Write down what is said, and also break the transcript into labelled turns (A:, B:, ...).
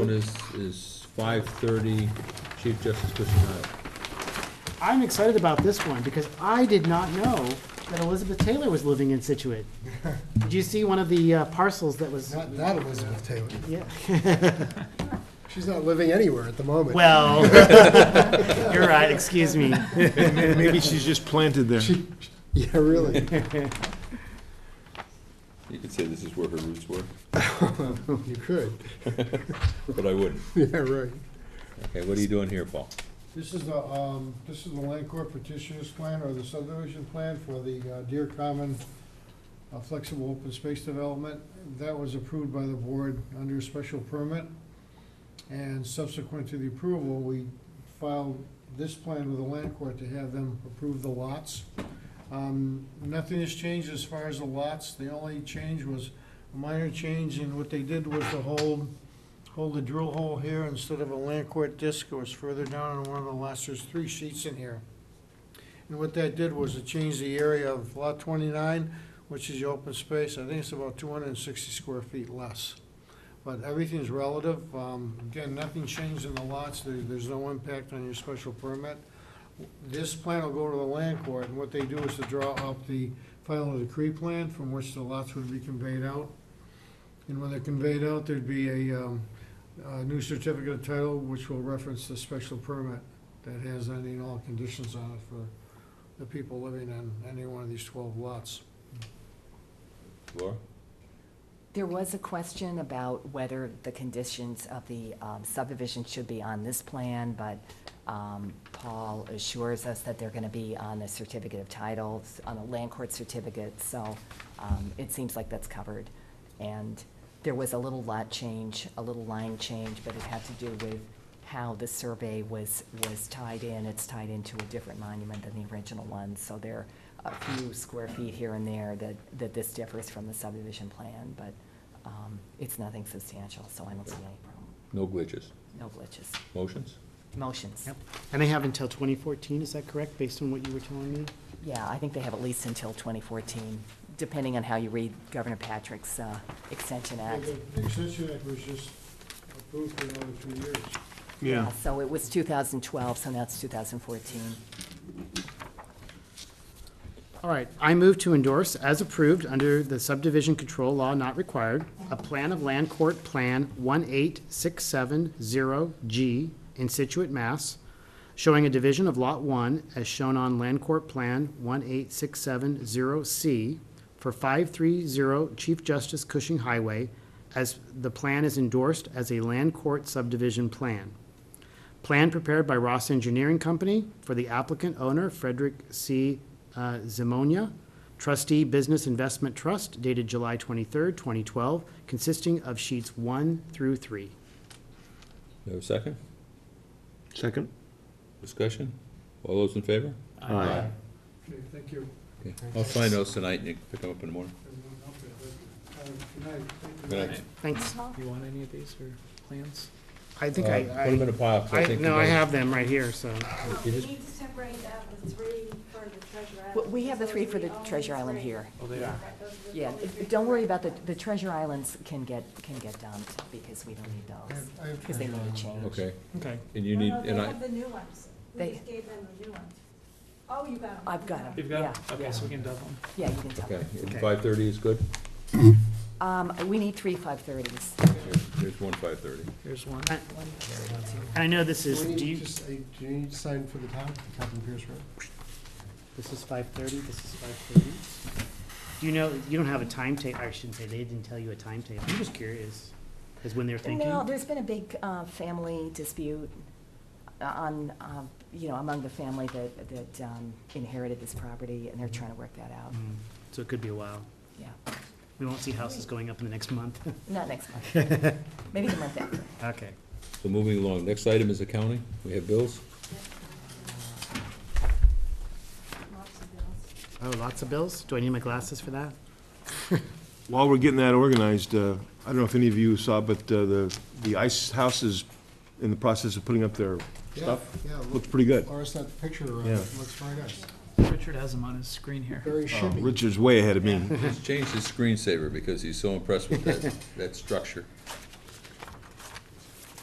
A: One is, is five thirty, Chief Justice Christian Hyatt.
B: I'm excited about this one because I did not know that Elizabeth Taylor was living in Situate. Did you see one of the uh, parcels that was?
C: Not that Elizabeth Taylor.
B: Yeah.
C: She's not living anywhere at the moment.
B: Well, you're right, excuse me.
D: Maybe she's just planted there.
C: She- Yeah, really.
A: You could say this is where her roots were,
C: You could.
A: but I wouldn't.
C: Yeah, right.
A: Okay, what are you doing here, Paul?
E: This is the, um, this is the land court petitioner's plan or the subdivision plan for the uh, Deer Common uh, Flexible Open Space Development. That was approved by the board under a special permit. And subsequent to the approval, we filed this plan with the land court to have them approve the lots. Um, nothing has changed as far as the lots. The only change was a minor change in what they did was to hold hold the drill hole here instead of a land court disc, it was further down on one of the last, there's three sheets in here. And what that did was it changed the area of lot twenty-nine, which is the open space, I think it's about two hundred and sixty square feet less. But everything's relative, um, again, nothing changed in the lots, there, there's no impact on your special permit. This plan will go to the land court, and what they do is to draw up the final decree plan from which the lots would be conveyed out. And when they're conveyed out, there'd be a, um, a new certificate of title, which will reference the special permit that has any and all conditions on it for the people living on any one of these twelve lots.
A: Laura?
F: There was a question about whether the conditions of the um, subdivision should be on this plan, but um, Paul assures us that they're going to be on the certificate of titles, on the land court certificate, so um, it seems like that's covered. And there was a little lot change, a little line change, but it had to do with how the survey was, was tied in. It's tied into a different monument than the original one, so there are a few square feet here and there that, that this differs from the subdivision plan, but um, it's nothing substantial, so I don't see any problem,
A: No glitches.
F: no glitches.
A: Motions?
F: Motions.
B: Yep. And they have until 2014, is that correct, based on what you were telling me?
F: Yeah, I think they have at least until 2014, depending on how you read Governor Patrick's uh, Extension Act.
E: The the extension act was just approved for another two years.
D: Yeah.
F: So it was 2012, so now it's 2014.
B: All right, I move to endorse as approved under the subdivision control law not required, a plan of land court plan one eight six seven zero G in Situate, Mass, showing a division of lot one as shown on land court plan one eight six seven zero C for five three zero Chief Justice Cushing Highway as the plan is endorsed as a land court subdivision plan. Plan prepared by Ross Engineering Company for the applicant owner Frederick C. uh, Zimonia, trustee Business Investment Trust dated July 23rd, 2012, consisting of sheets one through three.
A: You have a second?
D: Second?
A: Discussion? All those in favor?
D: Aye.
E: Okay, thank you.
A: Okay. I'll sign those tonight and you can pick them up in the morning.
E: Everyone help it. Uh, Good night. Thank you.
A: Good night.
B: Thanks.
G: You want any of these for plans?
B: I think
A: Uh, Put them in
B: I,
A: a pile, 'cause
B: I,
A: I
B: I,
A: think.
B: no, I
A: you guys-
B: have them right here, so.
A: You
H: We
A: just-
H: need to separate out the three for the Treasure
F: We-
H: Island.
F: We have the
H: Those
F: three
H: are
F: for the
H: only
F: Treasure Island
H: three.
F: here.
G: Oh, they are.
H: Right, those are the
F: Yeah,
H: only three.
F: don't worry about the, the Treasure Islands can get, can get dumped because we don't need
E: I
F: those,
E: have- I have
F: because they need to change.
A: Okay,
B: Okay.
A: and you
H: No,
A: need,
H: no, they
A: and I,
H: have the new ones. We
F: They-
H: just gave them the new ones. Oh, you got them.
F: I've got 'em.
G: You've got,
F: Yeah.
G: okay, so we can double them.
F: Yeah, you can tell.
A: okay, and
B: Okay.
A: five thirty is good?
F: Um, we need three five thirties.
A: Here- Here's one five thirty.
G: Here's one.
B: I- I know this
C: Do
B: is,
C: we
B: do
C: need
B: you,
C: to s- uh, do you need to sign for the town, Captain Pierce Road?
B: this is 5:30, this is 5:30. Do you know, you don't have a timetable, I shouldn't say, they didn't tell you a timetable. I'm just curious, is when they're thinking?
F: No, there's been a big, uh, family dispute on, um, you know, among the family that, that um, inherited this property and they're trying to work that out.
B: Mm, So it could be a while.
F: Yeah,
B: We won't see houses going up in the next month.
F: not next month. Maybe the month after.
B: Okay.
A: So moving along, next item is accounting. We have bills.
H: Lots of bills.
B: Oh, lots of bills? Do I need my glasses for that?
D: While we're getting that organized, uh, I don't know if any of you saw, but uh, the, the ice house is in the process of putting up their
E: Yeah,
D: stuff.
E: yeah, look,
D: Looks pretty good.
E: Laura sent the picture, uh,
D: Yeah. Um,
E: looks very nice.
G: Richard has them on his screen here.
E: Very shippy.
D: Richard's Uh, way ahead of me.
A: He's changed his screensaver because he's so impressed with that, that structure.